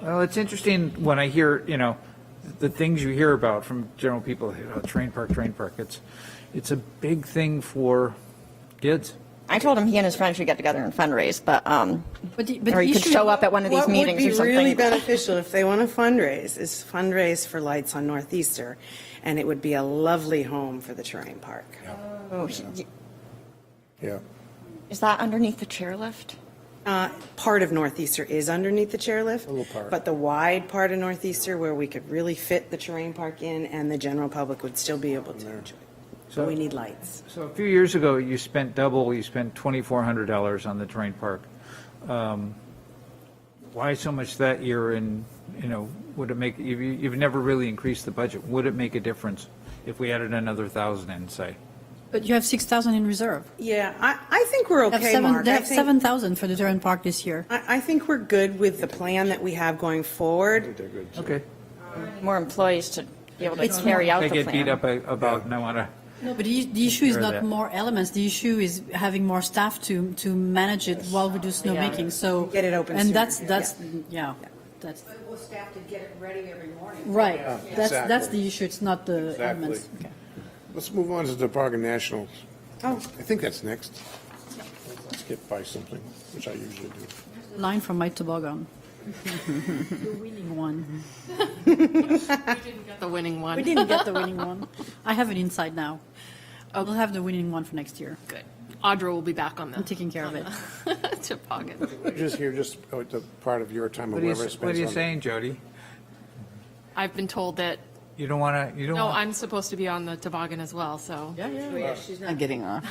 Well, it's interesting when I hear, you know, the things you hear about from general people, you know, train park, train park. It's, it's a big thing for kids. I told him he and his friends should get together and fundraise, but, um, But the- but or the you could issue- show up at one of these meetings or What would be really something. beneficial if they want to fundraise is fundraise for Lights on Northeaster, and it would be a lovely home for the Terrain Park. Oh, he- Yeah. Is that underneath the chairlift? Uh, Part of Northeaster is underneath the chairlift. But the wide part of Northeaster where we could really fit the Terrain Park in and the general public would still be able to enjoy. it. But we need lights. So a few years ago, you spent double, you spent $2,400 on the terrain park. Um, Why so much that year and, you know, would it make, you- you- you've never really increased the budget. Would it make a difference if we added another 1,000 in, say? But you have 6,000 in reserve. Yeah, I, I think we're They have okay, seven- Mark. They I have think- 7,000 for the Durant Park this year. I, I think we're good with the plan that we have going forward. Okay. More employees to be able to carry out I the get beat plan. up a- about, and I want to, No, but the the issue is Sure that- not more elements, the issue is having more staff to, to manage it while we do snowmaking, so. Get it open And sooner, that's, yeah. that's, yeah, that's, Well, staff to get it ready every morning. right, that's, that's exactly. the issue, it's not the elements. Exactly. Okay. Let's move on to the Park and Nationals. Oh. I think that's next. Let's get by something, which I usually do. Line from my toboggan. The winning one. The winning We one. didn't get the winning one. I have it inside now. We'll have the winning one for next year. Good. Audra will be back on the. I'm taking care of it. it. Toboggan. Just here, just uh, the part of your time, what are you, whoever spends s- on. what are you it. saying, Jody? I've been told that, You don't want to, you don't no, want. I'm supposed to be on the toboggan as well, so. Oh, I'm getting off.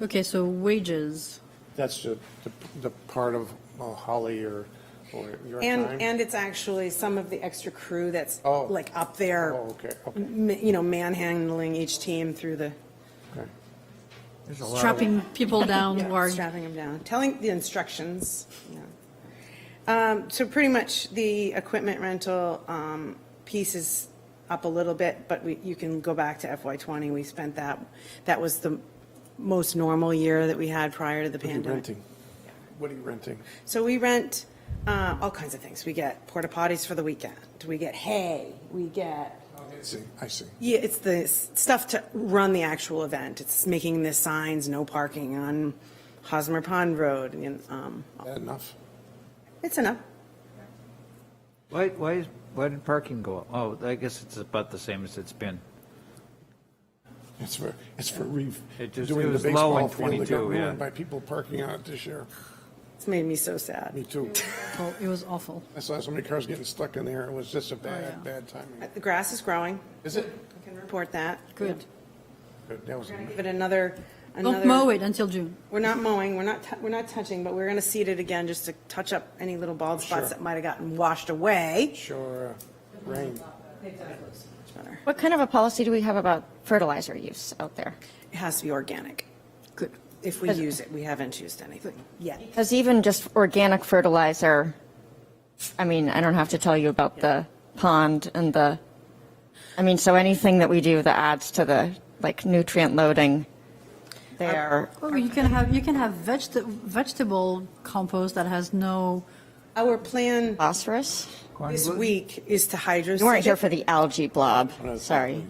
Okay, so wages. That's the, the- the part of uh, Holly or, or your time? And, and it's actually some of the extra crew that's Oh. like up there. Oh, okay, okay. m- You know, manhandling each team through the, Okay. There's a lot of- strapping people down or strapping them down, telling the instructions. yeah. Um, So pretty much the equipment rental um, piece is up a little bit, but we, you can go back to FY '20. We spent that, that was the most normal year that we had prior to the What are you pandemic. renting? What are you renting? So we rent uh, all kinds of things. We get porta potties for the weekend. We get hay. We get Oh, I see, I see. yeah, it's the s- stuff to run the actual event. It's making the signs, no parking on Hosmer Pond Road, and, um, That enough? it's enough. Why, why, is- why did parking go up? Oh, I guess it's about the same as it's been. It's for, it's for re, It just- it doing the was low in baseball field that 22, got yeah. ruined by people parking out this year. It's made me so sad. Me too. oh, it was awful. I saw so many cars getting stuck in there. It was just a Oh, bad, bad timing. The grass is growing. Is it? I can report that. Good. But That was, Give it another, Don't mow another, it until June. we're not mowing, we're not, tou- we're not touching, but we're going to seed it again just to touch up any little bald spots Sure. that might have gotten washed away. sure, uh, rain. What kind of a policy do we have about fertilizer use out there? It has to be organic. Good. If we use it, we haven't used anything yet. Because even just organic fertilizer, I mean, I don't have to tell you about the pond and the, I mean, so anything that we do that adds to the, like, nutrient loading Um, there. Oh, you can have you can have vegeta- vegetable compost that has no. Our plan Phosphorus? this week is to hydro. You weren't here for the algae blob, sorry.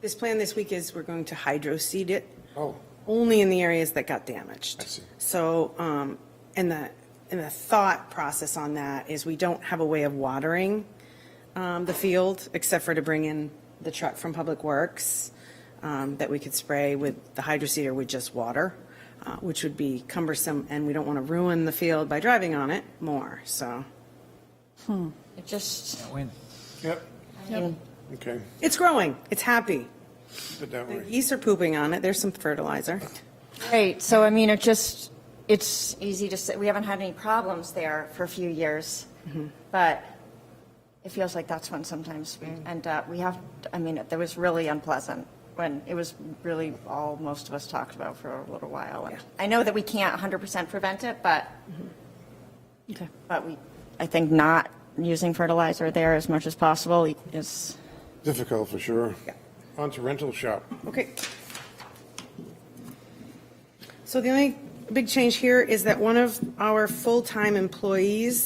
This plan this week is we're going to hydro seed it. Oh. Only in the areas that got damaged. I see. So, um, and the, and the thought process on that is we don't have a way of watering, um, the field except for to bring in the truck from Public Works, um, that we could spray with the hydro seeder with just water, uh, which would be cumbersome and we don't want to ruin the field by driving on it more, so. It just, When? Yep. Okay, It's growing. It's happy. put that way. Geese are pooping on it. There's some fertilizer. right, so I mean, it just, it's easy to say, we haven't had any problems there for a few years, but it feels like that's when sometimes we end up, we have, I mean, that was really unpleasant when it was really all most of us talked about for a little while. And I know that we can't 100% prevent it, but Mm-hmm. Okay. But we, I think not using fertilizer there as much as possible is, Difficult for sure. On to rental shop. Okay. So the only big change here is that one of our full-time employees